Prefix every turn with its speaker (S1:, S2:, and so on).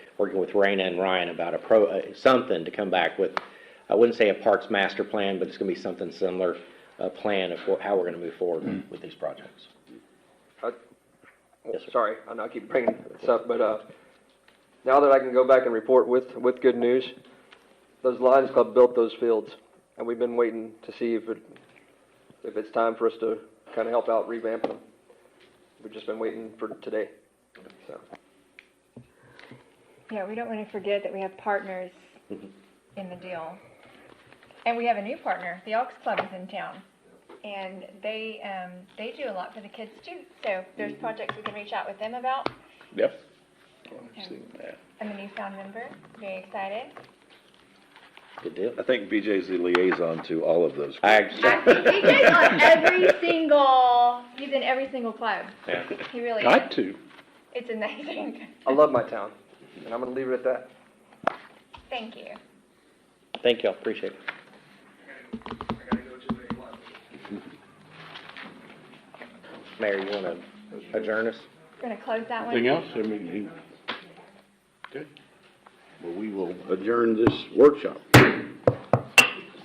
S1: working with Raina and Ryan about a pro, uh, something to come back with. I wouldn't say a parks master plan, but it's gonna be something similar, a plan of wha- how we're gonna move forward with these projects.
S2: I-
S1: Yes, sir.
S2: Sorry, I know I keep bringing this up, but, uh, now that I can go back and report with, with good news, those Lions Club built those fields, and we've been waiting to see if it, if it's time for us to kind of help out revamp them. We've just been waiting for today, so.
S3: Yeah, we don't want to forget that we have partners in the deal. And we have a new partner, the Elks Club is in town. And they, um, they do a lot for the kids too. So there's projects we can reach out with them about.
S4: Yep.
S3: I'm a newfound member, very excited.
S1: Good deal.
S4: I think BJ's the liaison to all of those.
S1: I,
S3: Actually, BJ's on every single, he's in every single club.
S1: yeah.
S3: He really is.
S5: Got to.
S3: It's amazing.
S2: I love my town, and I'm gonna leave it at that.
S3: Thank you.
S1: Thank y'all, appreciate it. Mayor, you wanna adjourn us?
S3: We're going to close that one.
S5: Anything else? I mean, he- okay. Well, we will adjourn this workshop.